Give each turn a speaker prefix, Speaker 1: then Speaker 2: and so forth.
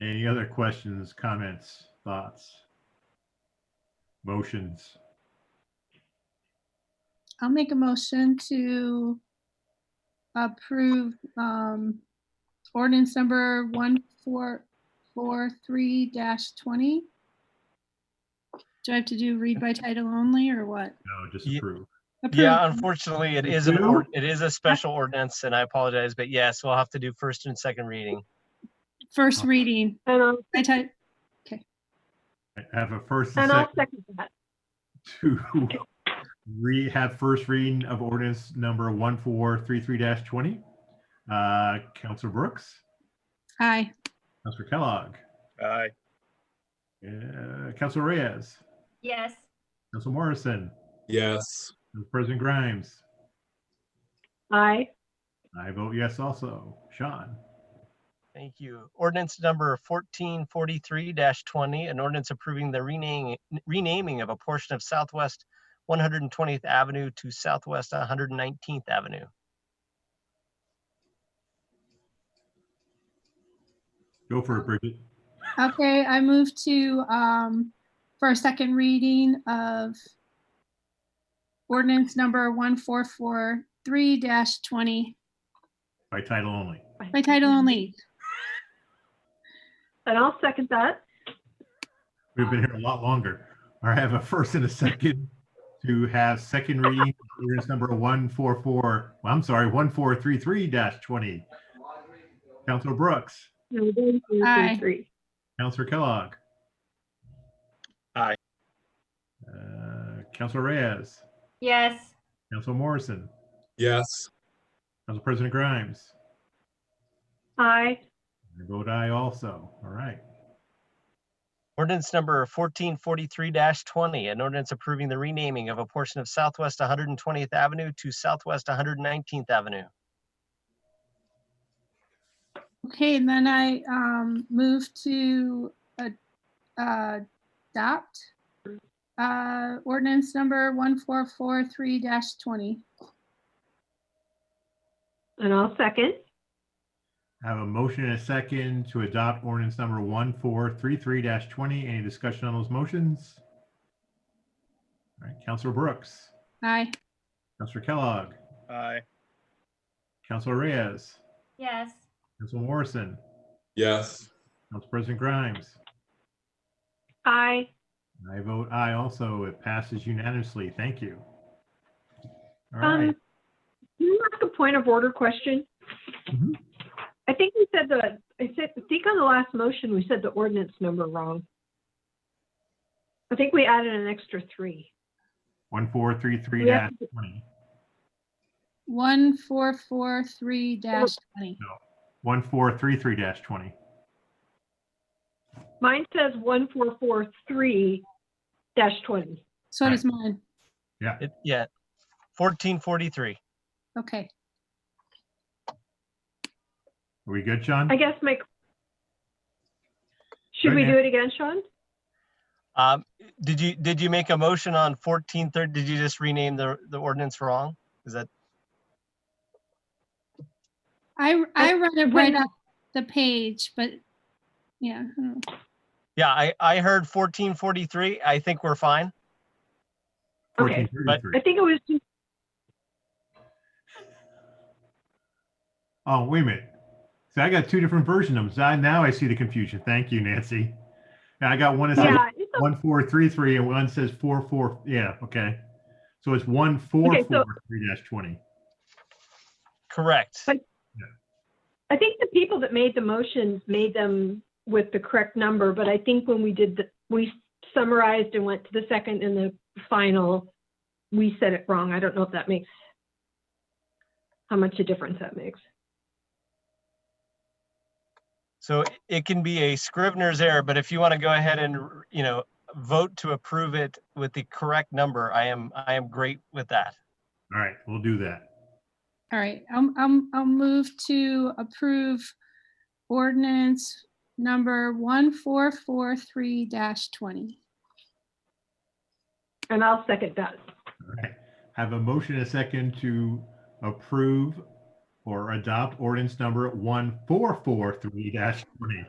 Speaker 1: Any other questions, comments, thoughts? Motions?
Speaker 2: I'll make a motion to approve um, ordinance number one four four three twenty. Do I have to do read by title only or what?
Speaker 1: No, just
Speaker 3: Ye-
Speaker 1: approve.
Speaker 3: Yeah,
Speaker 2: Approved.
Speaker 3: unfortunately, it
Speaker 1: You
Speaker 3: is an,
Speaker 1: do?
Speaker 3: ord- it is a special ordinance and I apologize, but yes, we'll have to do first and second reading.
Speaker 2: First reading.
Speaker 4: And I'll,
Speaker 2: I type,
Speaker 1: I Have a first and
Speaker 4: and I'll
Speaker 1: second
Speaker 4: second that.
Speaker 1: to re, have first reading of ordinance number 1433-20. Uh, Counselor Brooks,
Speaker 2: aye.
Speaker 1: Counselor Kellogg,
Speaker 5: Aye.
Speaker 1: uh, Counselor Reyes,
Speaker 6: Yes.
Speaker 1: Counselor Morrison,
Speaker 5: Yes.
Speaker 1: President Grimes.
Speaker 4: Aye.
Speaker 1: I vote yes also. Sean?
Speaker 3: Thank you. Ordinance number fourteen forty-three twenty, an ordinance approving the renaming, renaming of a portion of Southwest one hundred and twentieth Avenue to Southwest one hundred and nineteenth Avenue.
Speaker 1: Go for it, Bridget.
Speaker 2: Okay, I move to, um, for a second reading of ordinance number one four four three twenty
Speaker 1: By title only.
Speaker 2: by title only.
Speaker 4: And I'll second that.
Speaker 1: We've been here a lot longer. All right, I have a first and a second to have second reading, ordinance number 144, well, I'm sorry, 1433-20. Counselor Brooks,
Speaker 4: No, one, two, three,
Speaker 2: Aye.
Speaker 4: three.
Speaker 1: Counselor Kellogg.
Speaker 5: Aye.
Speaker 1: Uh, Counselor Reyes,
Speaker 6: Yes.
Speaker 1: Counselor Morrison,
Speaker 5: Yes.
Speaker 1: Council President Grimes.
Speaker 4: Aye.
Speaker 1: I vote aye also. All right.
Speaker 3: Ordinance number fourteen forty-three twenty, an ordinance approving the renaming of a portion of Southwest one hundred and twentieth Avenue to Southwest one hundred and nineteenth Avenue.
Speaker 2: Okay, and then I um move to uh, uh, adopt uh ordinance number one four four three twenty.
Speaker 4: And I'll second.
Speaker 1: I have a motion and a second to adopt ordinance number 1433-20. Any discussion on those motions? All right, Counselor Brooks,
Speaker 2: Aye.
Speaker 1: Counselor Kellogg,
Speaker 5: Aye.
Speaker 1: Counselor Reyes,
Speaker 6: Yes.
Speaker 1: Counselor Morrison,
Speaker 5: Yes.
Speaker 1: Council President Grimes.
Speaker 4: Aye.
Speaker 1: I vote aye also. It passes unanimously. Thank you. All
Speaker 4: Um,
Speaker 1: right,
Speaker 4: can you ask a point of order question?
Speaker 1: Mhm.
Speaker 4: I think we said the, I said, I think on the last motion, we said the ordinance number wrong. I think we added an extra three.
Speaker 1: 1433-20.
Speaker 2: One four four three twenty.
Speaker 1: 1433-20.
Speaker 4: Mine says one, four, four, three dash twenty.
Speaker 2: So does mine.
Speaker 3: It, yeah, fourteen forty-three.
Speaker 2: Okay.
Speaker 1: Are we good, Sean?
Speaker 4: I guess my, should we do it again, Sean?
Speaker 3: Um, did you, did you make a motion on fourteen thirty? Did you just rename the, the ordinance wrong? Is that,
Speaker 2: I I read it right
Speaker 4: Wait.
Speaker 2: up the page, but yeah. I don't know.
Speaker 3: yeah, I, I heard fourteen forty-three. I think we're fine.
Speaker 4: Okay.
Speaker 1: 1433.
Speaker 4: I think it was just
Speaker 1: Oh, wait a minute. So I got two different versions of them. So I- now I see the confusion. Thank you, Nancy. Now I got one that says
Speaker 4: Yeah, it's
Speaker 1: one four three three and one says four four. Yeah, okay. So it's one four
Speaker 4: Okay, so-
Speaker 1: four three dash twenty.
Speaker 3: Correct.
Speaker 4: But- a- I think the people that made the motions made them with the correct number, but I think when we did, the we summarized and went to the second and the final, we said it wrong. I don't know if that makes, how much a difference that makes.
Speaker 3: So it- it can be a scrivener's error, but if you want to go ahead and, r- you know, vote to approve it with the correct number, I am, I am great with that.
Speaker 1: All right, we'll do that.
Speaker 2: All right, I'm I'm I'll move to approve ordinance number one four four three twenty.
Speaker 4: And I'll second that.
Speaker 1: All right. Have a motion and a second to approve or adopt ordinance number one four four three dash twenty.